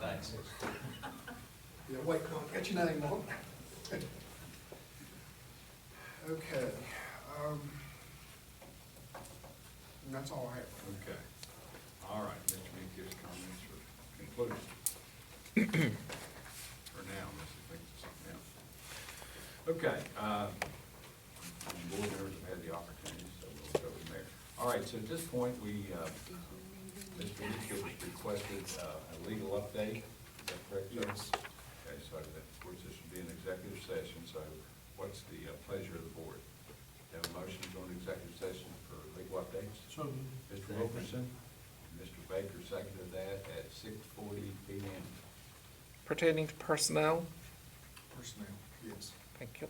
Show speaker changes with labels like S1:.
S1: taxes.
S2: Yeah, wait, come on, get your name on. Okay, um, and that's all I have.
S3: Okay. All right, Mr. Minkus, comments or conclusion? For now, unless he thinks of something else. Okay, uh, the board members have had the opportunity, so we'll go from there. All right, so at this point, we, uh, Mr. Minkus requested uh, a legal update, is that correct? sir?
S2: Yes.
S3: Okay, so that, of course, this should be an executive session, so what's the uh, pleasure of the board? Have a motion to go into executive session for legal updates?
S4: So moved.
S3: Mr. Wilkerson, and Mr. Baker seconded that at six forty P M.
S5: pertaining to personnel.
S2: Personnel, yes.
S5: Thank you.